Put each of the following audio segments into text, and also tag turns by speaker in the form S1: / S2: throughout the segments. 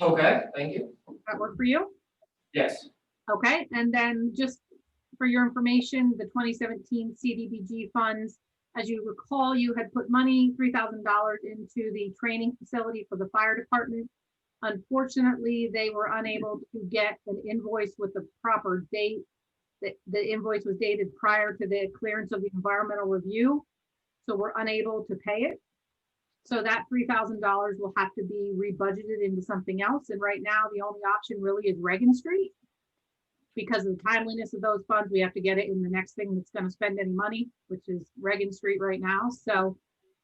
S1: Okay, thank you.
S2: That work for you?
S1: Yes.
S2: Okay, and then just for your information, the twenty seventeen CDBG funds, as you recall, you had put money, three thousand dollars into the training facility for the fire department. Unfortunately, they were unable to get an invoice with the proper date. The, the invoice was dated prior to the clearance of the environmental review, so we're unable to pay it. So that three thousand dollars will have to be rebudgeted into something else, and right now, the only option really is Reagan Street because of the timeliness of those funds, we have to get it in the next thing that's gonna spend any money, which is Reagan Street right now, so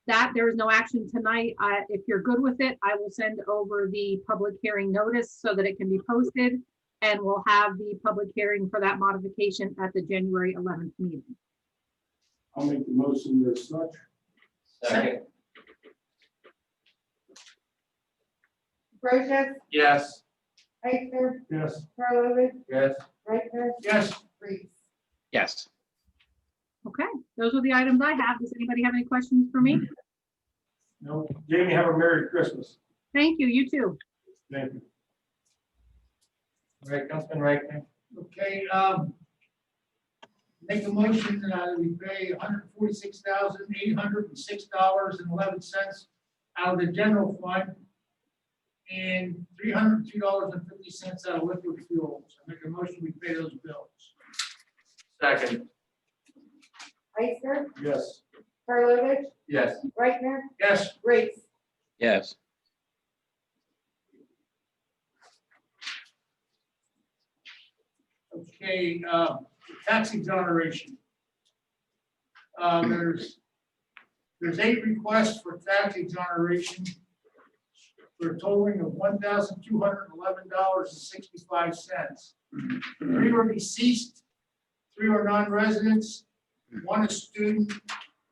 S2: that, there is no action tonight, I, if you're good with it, I will send over the public hearing notice so that it can be posted, and we'll have the public hearing for that modification at the January eleventh meeting.
S3: I'll make the motion as such.
S1: Second.
S4: Brochus,
S1: Yes.
S4: Eichner,
S3: Yes.
S4: Karlovic,
S1: Yes.
S4: Rechner,
S3: Yes.
S4: Reese.
S5: Yes,
S2: Okay, those are the items I have, does anybody have any questions for me?
S3: No. Jamie, have a Merry Christmas.
S2: Thank you, you too.
S3: Thank you.
S6: All right, Councilman Reichner. Okay, um, make a motion that we pay hundred forty-six thousand, eight hundred and six dollars and eleven cents out of the general fund and three hundred and two dollars and fifty cents out of liquid fuels. I make a motion, we pay those bills.
S1: Second.
S4: Eichner,
S3: Yes.
S4: Karlovic,
S1: Yes.
S4: Rechner,
S6: Yes,
S4: Reese.
S5: yes,
S6: okay, uh, tax exoneration. Uh, there's, there's eight requests for tax exoneration for a totaling of one thousand two hundred and eleven dollars and sixty-five cents. Three are deceased, three are non-residents, one is student,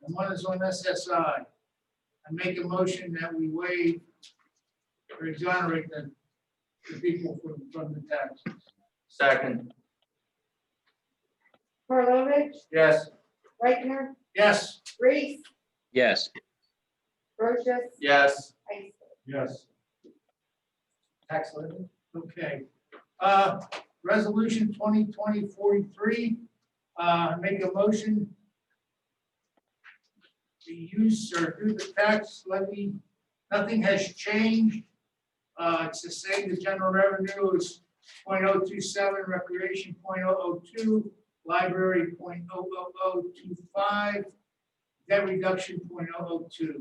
S6: and one is on SSI. I make a motion that we waive or exonerate the, the people from, from the tax.
S1: Second.
S4: Karlovic,
S1: Yes.
S4: Rechner,
S6: Yes.
S4: Reese,
S5: yes,
S4: Brochus,
S1: Yes.
S4: Eichner.
S3: Yes.
S6: Tax levy. Okay. Uh, Resolution 2020-43, uh, make a motion to use or do the tax levy, nothing has changed. Uh, It's the same, the general revenue is 0.027, recreation 0.002, library 0.00025, debt reduction 0.002.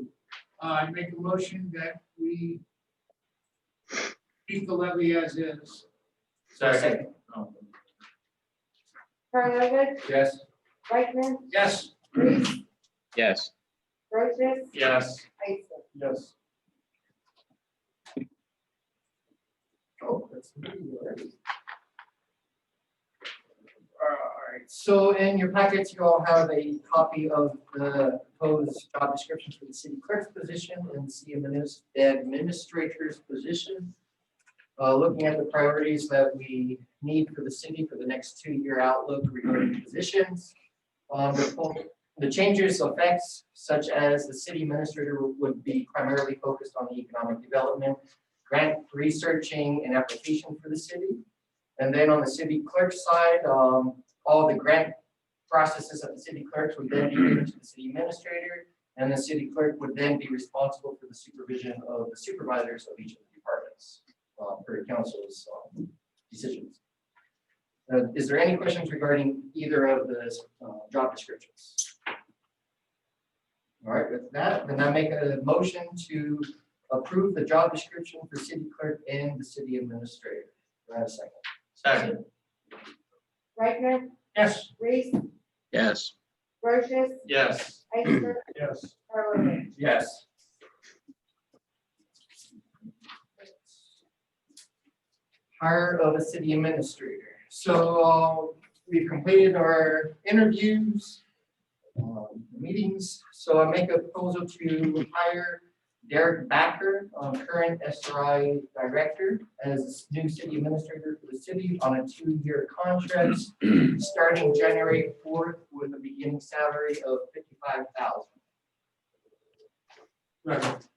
S6: Uh, I make a motion that we keep the levy as is.
S1: Second.
S4: Karlovic,
S1: Yes.
S4: Rechner,
S6: Yes,
S4: Reese,
S5: yes,
S4: Brochus,
S1: Yes.
S4: Eichner.
S3: Yes.
S6: all right, so in your packets, you all have a copy of the proposed job description for the city clerk's position and city adminis- administrator's position. Uh, looking at the priorities that we need for the city for the next two-year outlook regarding positions. Um, the full- the changes affects such as the city administrator would be primarily focused on the economic development grant researching and application for the city. And then on the city clerk side, um, all the grant processes of the city clerks would then be given to the city administrator. And the city clerk would then be responsible for the supervision of the supervisors of each of the departments, uh, per council's, um, decisions. Uh, is there any questions regarding either of the, uh, job descriptions? All right, with that, then I make a motion to approve the job description for city clerk and the city administrator. Do I have a second?
S1: Second.
S4: Rechner,
S6: Yes.
S4: Reese,
S5: yes,
S4: Brochus,
S1: Yes.
S4: Eichner,
S3: Yes.
S4: Karlovic.
S1: Yes.
S6: Hire of a city administrator. So uh, we've completed our interviews, um, meetings, so I make a proposal to hire Derek Backer, uh, current SRI director, as new city administrator for the city on a two-year contract, starting January fourth with a beginning salary of fifty-five thousand.
S3: Second.